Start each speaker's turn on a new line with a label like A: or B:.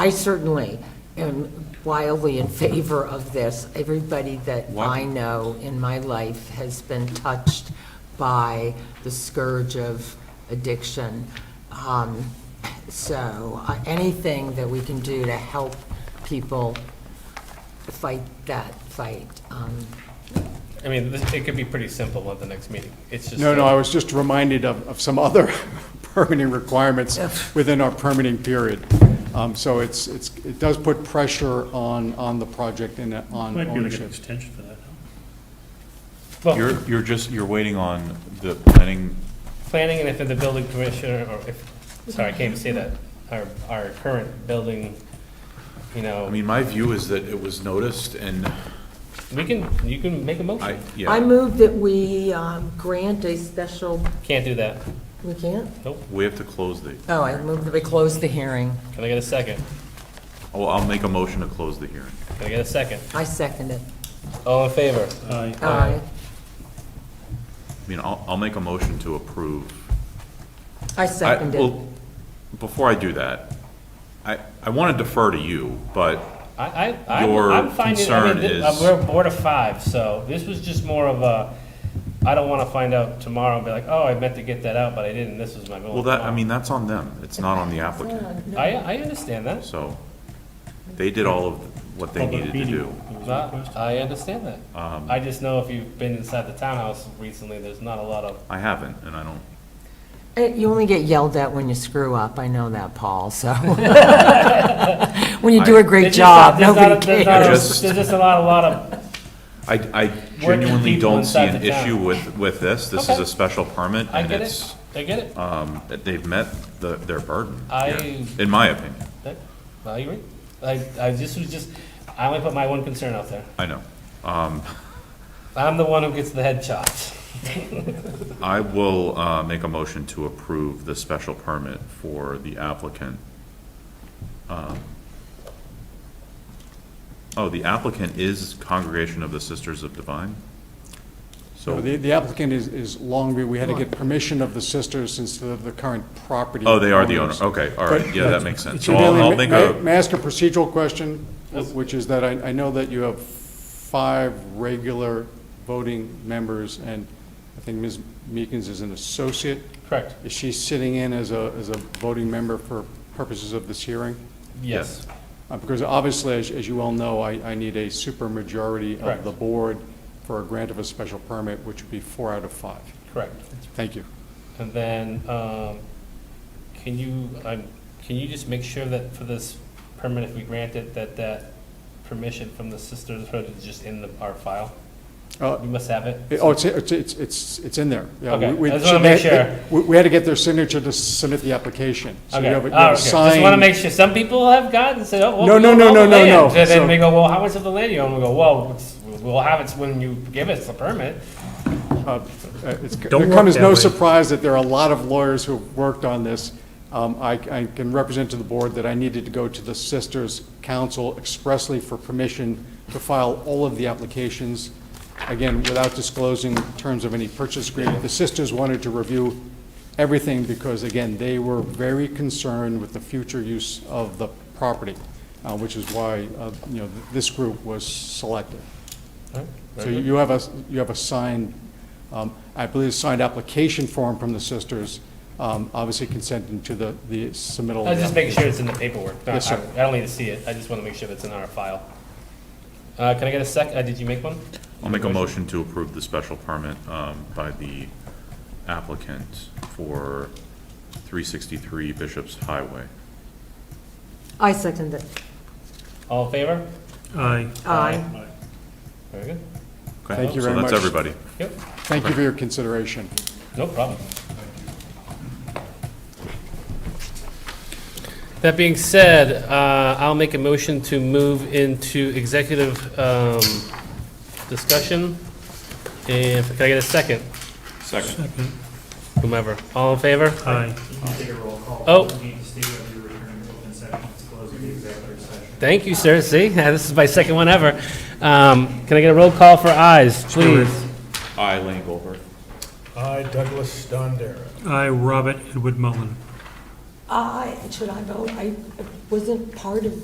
A: I certainly am wildly in favor of this. Everybody that
B: Why-
A: I know in my life has been touched by the scourge of addiction. Um, So uh, anything that we can do to help people fight that fight. um,
C: I mean, this- it could be pretty simple at the next meeting. It's just.
D: No, no,
C: uh,
D: I was just reminded of, of some other permitting requirements within our permitting period. Um, So it's, it's, it does put pressure on, on the project and uh, on
E: Might be able to get an
D: ownership.
E: extension for that.
C: well,
B: You're, you're just, you're waiting on the planning,
C: Planning and if the building commissioner, or if, sorry, I can't even say that, our, our current building,
B: I
C: you know,
B: mean, my view is that it was noticed and
C: we can, you can make a
B: I,
C: motion.
A: I
B: yeah,
A: move that we um, grant a special,
C: Can't do that.
A: we can't?
C: Nope.
B: we have to close the,
A: Oh, I move that we close the hearing.
C: Can I get a second?
B: oh, I'll make a motion to close the hearing.
C: Can I get a second?
A: I second it.
C: All in favor?
E: Aye.
A: Aye.
B: I mean, I'll, I'll make a motion to approve.
A: I
B: I-
A: second it.
B: well, Before I do that, I, I want to defer to you, but
C: I, I, I'm-
B: Your
C: I'm finding, I mean,
B: concern
C: thi- uh,
B: is-
C: we're a board of five, so this was just more of a, I don't want to find out tomorrow and be like, oh, I meant to get that out, but I didn't, this was my goal.
B: Well, that, I mean, that's on them. It's not on the applicant.
C: I, I understand that.
B: So they did all of what they
E: Public
B: needed to
E: meeting
B: do.
E: was
C: No,
E: requested.
C: I understand that.
B: Um,
C: I just know if you've been inside the townhouse recently, there's not a lot of,
B: I haven't, and I don't,
A: Eh, You only get yelled at when you screw up, I know that, Paul, so. When you do a great
C: There's just
A: job,
C: not- there's not a-
A: nobody
C: there's not a-
A: cares.
B: cares.
C: There's just a lot, a lot of,
B: I, I genuinely
C: people
B: don't see
C: inside
B: an
C: the town.
B: issue with, with this. This is
C: Okay.
B: a special permit
C: I
B: and
C: get
B: it's,
C: it, I get it,
B: um, that they've met the, their burden.
C: I-
B: here, In my opinion.
C: That- I agree. I, I just was just, I only put my one concern out there.
B: I know.
C: I'm the one who gets the head chopped.
B: I will, uh, make a motion to approve the special permit for the applicant. Um, Oh, the applicant is Congregation of the Sisters of Divine?
D: So the, the applicant is, is Longview. We had to get permission of the sisters since they're the current property.
B: Oh, they are the owner,
D: owners.
B: okay, all right,
D: But-
B: yeah, that makes sense.
D: So
B: So I'll,
D: Daley,
B: I'll
D: may-
B: make
D: may-
B: a,
D: May I ask a procedural question,
C: Yes.
D: which is that I, I know that you have five regular voting members, and I think Ms. Meekins is an associate.
C: Correct,
D: Is she sitting in as a, as a voting member for purposes of this hearing?
C: yes.
D: Uh, Because obviously, as, as you well know, I, I need a supermajority of
C: Correct.
D: the board for a grant of a special permit, which would be four out of five.
C: Correct.
D: Thank you.
C: And then, um, can you, um, can you just make sure that for this permit, if we grant it, that that permission from the sisters is just in the, our file?
D: Uh,
C: We must have it?
D: It- Oh, it's, it's, it's- it's, it's in there. Yeah,
C: Okay,
D: we- we-
C: I just wanna make sure.
D: We, we had to get their signature to submit the application. So you
C: Okay,
D: have a- you
C: all
D: have
C: right,
D: a
C: okay. Just want to
D: signed-
C: make sure, some people have gotten and said, oh, well.
D: No,
C: we
D: no,
C: own
D: no,
C: all the
D: no, no,
C: land.
D: no.
C: And
D: So-
C: then we go, well, how much of the land you own? We go, well, it's- we'll have it when you give us the permit.
D: uh, uh, it's- It
F: Don't work
D: comes as
F: that
D: no
F: way.
D: surprise that there are a lot of lawyers who've worked on this. Um, I, I can represent to the board that I needed to go to the Sisters Council expressly for permission to file all of the applications, again, without disclosing terms of any purchase agreement. The Sisters wanted to review everything because, again, they were very concerned with the future use of the property, uh, which is why, uh, you know, th- this group was selected. So you have a, you have a signed, um, I believe, signed application form from the sisters, um, obviously consenting to the, the submittal.
C: I was just making sure it's in the paperwork. No,
D: Yes, sir.
C: I I don't need to see it, I just want to make sure it's in our file. Uh, Can I get a sec, uh, did you make one?
B: I'll make a motion to approve the special permit, um, by the applicant for three sixty-three Bishop's Highway.
A: I second it.
C: All in favor?
E: Aye.
A: Aye.
E: Aye.
C: Very good.
B: Okay?
D: Thank you very
B: So
D: much.
B: that's everybody.
C: Yep,
D: Thank you for your consideration.
C: no problem. That being said, uh, I'll make a motion to move into executive um, discussion. And can I get a second?
B: Second.
C: Whomever. All in favor?
E: Aye.
G: I'll take a roll call.
C: Oh.
G: We Need to state whether you're returning to open session, it's closing the executive session.
C: Thank you, sir. See, this is my second one ever. Um, Can I get a roll call for ayes, please?
B: I, Lane Goldberg.
H: I, Douglas Dondera.
E: Aye, Robert Edward Mullen.
A: I, should I vote? I wasn't part of